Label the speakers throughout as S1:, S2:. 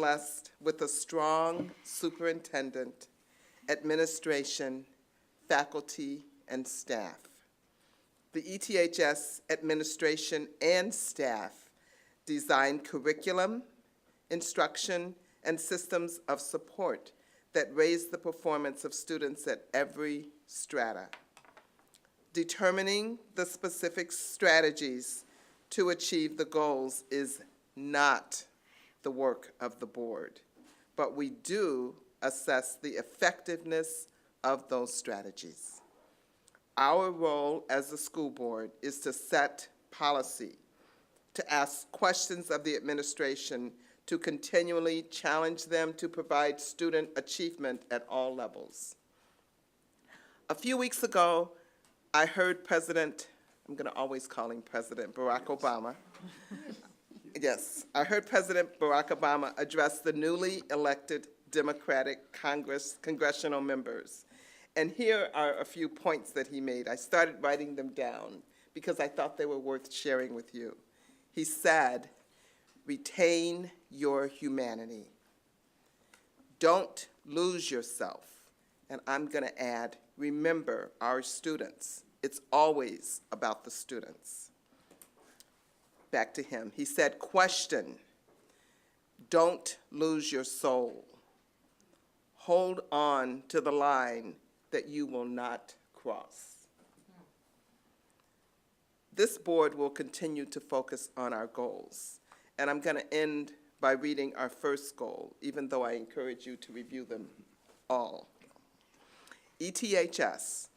S1: blessed with a strong superintendent, administration, faculty, and staff. The E ETHS administration and staff design curriculum, instruction, and systems of support that raise the performance of students at every strata determining the specific strategies to achieve the goals is not the work of the board, but we do assess the effectiveness of those strategies. Our role as the school board is to set policy, to ask questions of the administration, to continually challenge them to provide student achievement at all levels. A few weeks ago, I heard President, I'm going to always call him President Barack Obama. Yes, I heard President Barack Obama address the newly elected Democratic Congress, congressional members. And here are a few points that he made. I started writing them down because I thought they were worth sharing with you. He said, retain your humanity. Don't lose yourself. And I'm going to add, remember our students. It's always about the students. Back to him. He said, question. Don't lose your soul. Hold on to the line that you will not cross. This board will continue to focus on our goals. And I'm going to end by reading our first goal, even though I encourage you to review them all. E ETHS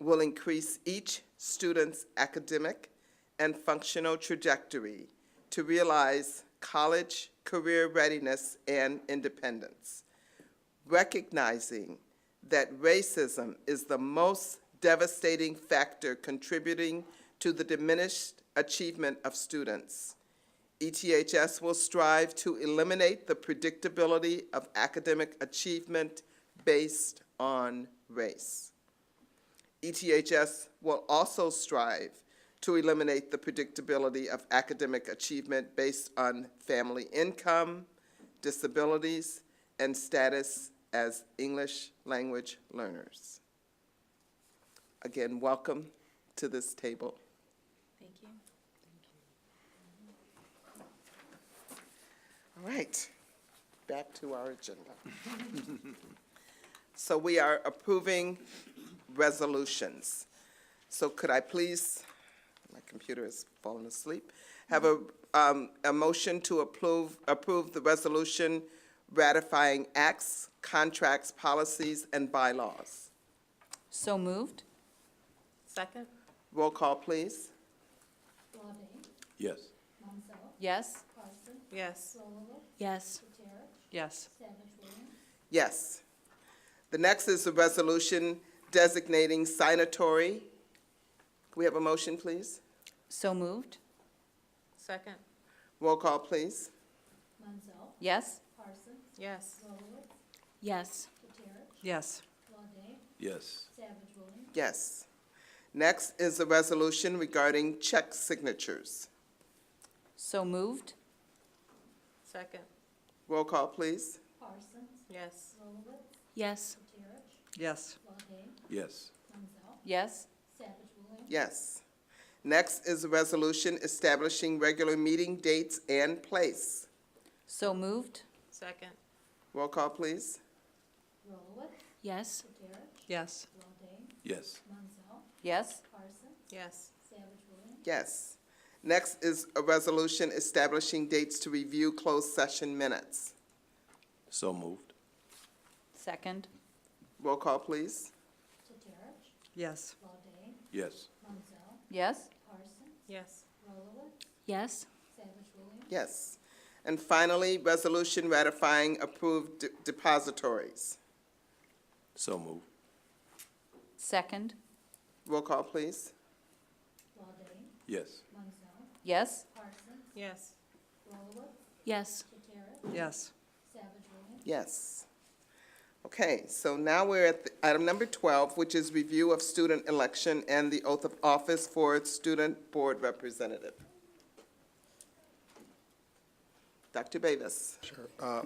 S1: will increase each student's academic and functional trajectory to realize college career readiness and independence recognizing that racism is the most devastating factor contributing to the diminished achievement of students. E ETHS will strive to eliminate the predictability of academic achievement based on race. E ETHS will also strive to eliminate the predictability of academic achievement based on family income, disabilities, and status as English language learners. Again, welcome to this table.
S2: Thank you.
S1: All right, back to our agenda. So we are approving resolutions. So could I please, my computer has fallen asleep, have a, um, a motion to approve, approve the resolution ratifying acts, contracts, policies, and bylaws?
S3: So moved?
S2: Second?
S1: Roll call, please.
S4: Lawbé,
S5: Yes.
S4: Monsell,
S3: Yes?
S4: Carson,
S2: Yes.
S4: Rollo,
S3: Yes.
S4: Buterich,
S3: Yes.
S4: Savage Williams,
S1: Yes. The next is a resolution designating signatory. Can we have a motion, please?
S3: So moved?
S2: Second?
S1: Roll call, please.
S4: Monsell,
S3: Yes?
S4: Carson,
S2: Yes.
S4: Rolowitz,
S3: Yes.
S4: Buterich,
S3: Yes.
S4: Lawbé,
S5: Yes.
S4: Savage Williams,
S1: Yes. Next is a resolution regarding check signatures.
S3: So moved?
S2: Second?
S1: Roll call, please.
S4: Carson,
S2: Yes.
S4: Rolowitz,
S3: Yes.
S4: Buterich,
S3: Yes.
S4: Lawbé,
S5: Yes.
S4: Monsell,
S3: Yes?
S4: Savage Williams,
S1: Yes. Next is a resolution establishing regular meeting dates and place.
S3: So moved?
S2: Second?
S1: Roll call, please.
S4: Rolowitz,
S3: Yes.
S4: Buterich,
S3: Yes.
S4: Lawbé,
S5: Yes.
S4: Monsell,
S3: Yes?
S4: Carson,
S2: Yes.
S4: Savage Williams,
S1: Yes. Next is a resolution establishing dates to review closed session minutes.
S5: So moved.
S3: Second?
S1: Roll call, please.
S4: Buterich,
S3: Yes.
S4: Lawbé,
S5: Yes.
S4: Monsell,
S3: Yes?
S4: Carson,
S2: Yes.
S4: Rolowitz,
S3: Yes.
S4: Savage Williams,
S1: Yes. And finally, resolution ratifying approved de- depositories.
S5: So moved.
S3: Second?
S1: Roll call, please.
S4: Lawbé,
S5: Yes.
S4: Monsell,
S3: Yes?
S4: Carson,
S2: Yes.
S4: Rolowitz,
S3: Yes.
S4: Buterich,
S3: Yes.
S4: Savage Williams,
S1: Yes. Okay, so now we're at the- item number 12, which is review of student election and the oath of office for its student board representative. Dr. Davis.
S6: Sure. Uh,